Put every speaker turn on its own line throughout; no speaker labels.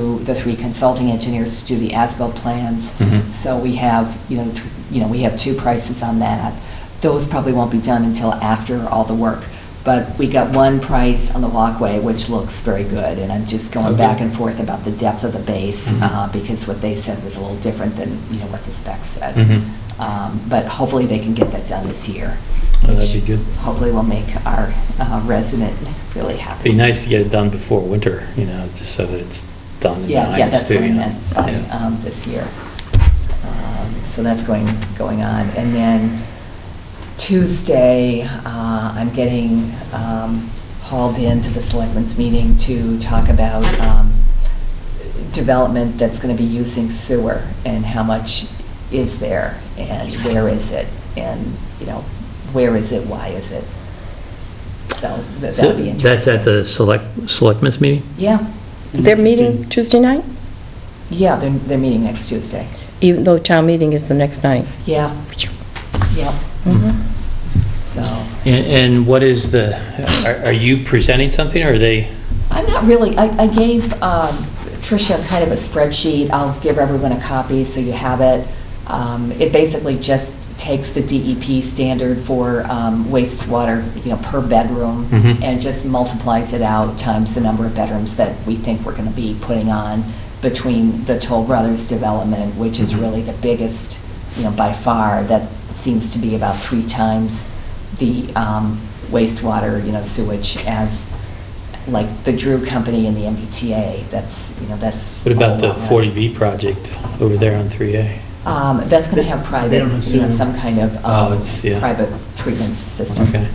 the three consulting engineers to do the ASBIL plans.
Mhm.
So we have, you know, th- you know, we have two prices on that. Those probably won't be done until after all the work. But we got one price on the walkway, which looks very good, and I'm just going
Okay.
back and forth about the depth of the base,
Mhm.
uh, because what they said was a little different than, you know, what the specs said.
Mhm.
Um, But hopefully they can get that done this year.
Oh, that'd be
which
good.
Hopefully will make our uh, resident really happy.
Be nice to get it done before winter, you know, just so that it's done and
Yeah,
behind
yeah,
us
that's
too,
what I
you know.
meant by
Yeah.
um, this year. Um, So that's going, going on. And then Tuesday, uh, I'm getting um, hauled into the selectmen's meeting to talk about um, development that's going to be using sewer and how much is there and where is it? And, you know, where is it, why is it? So that-
So
that'll be interesting.
That's at the select, selectmen's meeting?
Yeah,
They're meeting Tuesday night,
yeah, they're, they're meeting next Tuesday.
even though town meeting is the next night.
Yeah, yeah,
Mhm.
so,
And, and what is the, are, are you presenting something or are they?
I'm not really, I, I gave um, Tricia kind of a spreadsheet, I'll give everyone a copy so you have it. Um, It basically just takes the DEP standard for um, wastewater, you know, per bedroom,
Mhm.
and just multiplies it out times the number of bedrooms that we think we're going to be putting on between the Toll Brothers development, which is
Mhm.
really the biggest, you know, by far, that seems to be about three times the um, wastewater, you know, sewage as, like, the Drew Company and the MBTA, that's, you know, that's.
What about
a
the
lot less.
40B project over there on 3A?
Um, That's going to have
They
private,
don't have
you know,
sewer.
some kind of
Oh,
um,
it's- yeah.
private treatment system.
Okay.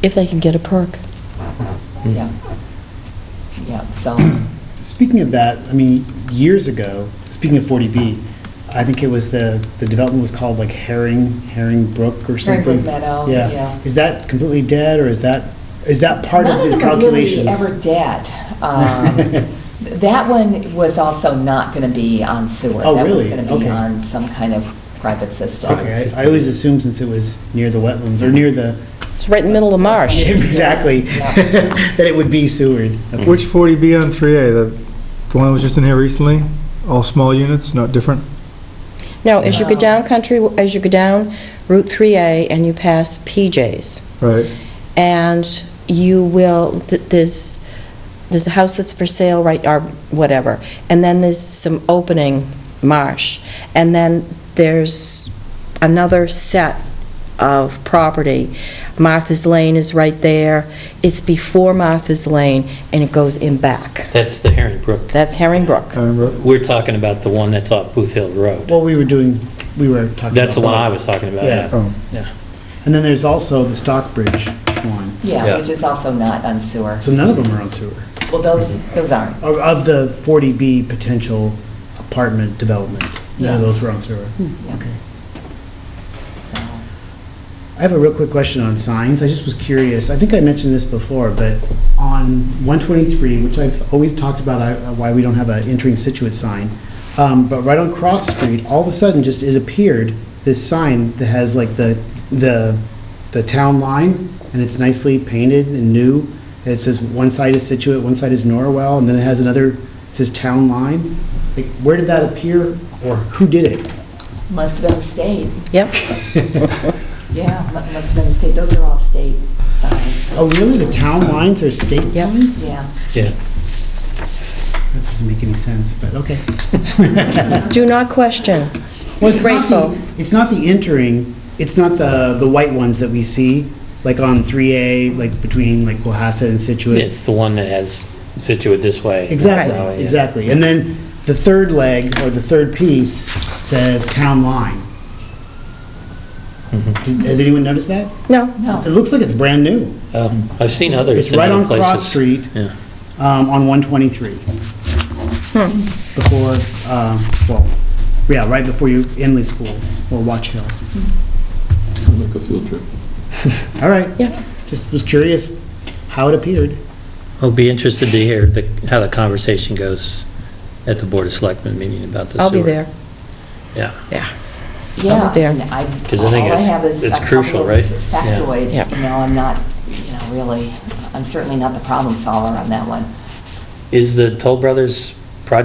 If they can get a perk.
Mm.
Yeah. Yeah, so,
Speaking of that, I mean, years ago, speaking of 40B, I think it was the, the development was called like Herring, Herring Brook or
Herring
something?
Brook Meadow, yeah.
Is that completely dead, or is that, is that part of the calculations?
None of them are really ever dead. Um, That one was also not going to be on sewer.
Oh, really?
That was going to be
Okay.
on some kind of private system.
Okay, I- I always assumed since it was near the wetlands, or near the,
It's right in the middle of marsh.
exactly, that it would be sewered. Okay.
Which 40B on 3A, the the one that was just in here recently? All small units, not different?
Now, as you go
Wow.
down country, as you go down Route 3A and you pass PJ's,
Right.
and you will, th- there's, there's a house that's for sale, right, or whatever, and then there's some opening marsh, and then there's another set of property. Martha's Lane is right there, it's before Martha's Lane, and it goes in back.
That's the Herring Brook.
That's Herring
I
Brook.
remember.
We're talking about the one that's off Booth Hill Road.
Well, we were doing, we were talking about.
That's the
uh,
one I was
both.
talking about,
Yeah.
yeah.
Oh,
Yeah. And then there's also the Stockbridge one.
Yeah,
Yeah.
which is also not on sewer.
So none of them are on sewer.
Well, those, those aren't.
Of of the 40B potential apartment development, none of
Yeah.
those were on sewer.
Yeah.
Okay.
So,
I have a real quick question on signs. I just was curious. I think I mentioned this before, but on 123, which I've always talked about, I- uh, why we don't have an entering Situate sign, um, but right on Cross Street, all of a sudden, just it appeared, this sign that has like the, the, the town line, and it's nicely painted and new. It says one side is Situate, one side is Norwell, and then it has another, it says town line. Like, where did that appear, or who did it?
must have been the state.
Yep,
Yeah, mu- must have been the state. Those are all state signs.
Oh, really? The town lines are state
Yeah.
signs?
Yeah.
Yeah.
That doesn't make any sense, but okay.
do not question.
Well, it's not
Grateful.
the, it's not the entering, it's not the, the white ones that we see, like on 3A, like between like Cohasset and Situate.
It's the one that has Situate this way. that way,
Exactly,
yeah.
exactly. And then the third leg, or the third piece, says town line. Did- Has anyone noticed that?
No,
No.
It looks like it's brand new.
Um, I've seen others.
It's
in
right
other
on Cross
places.
Street,
Yeah.
um, on 123. Before, um, well, yeah, right before you, Inley School or Watch Hill.
Make a field trip.
All right.
Yeah.
Just was curious how it appeared.
I'll be interested to hear the, how the conversation goes at the Board of Selectmen meeting about the sewer.
I'll be there.
Yeah.
Yeah.
there.
and I-
'Cause I think
all
it's-
have is
it's
a
crucial,
couple of
right? Yeah.
Factoids,
Yeah.
you know, I'm not, you know, really, I'm certainly not the problem solver on that one.
Is the Toll Brothers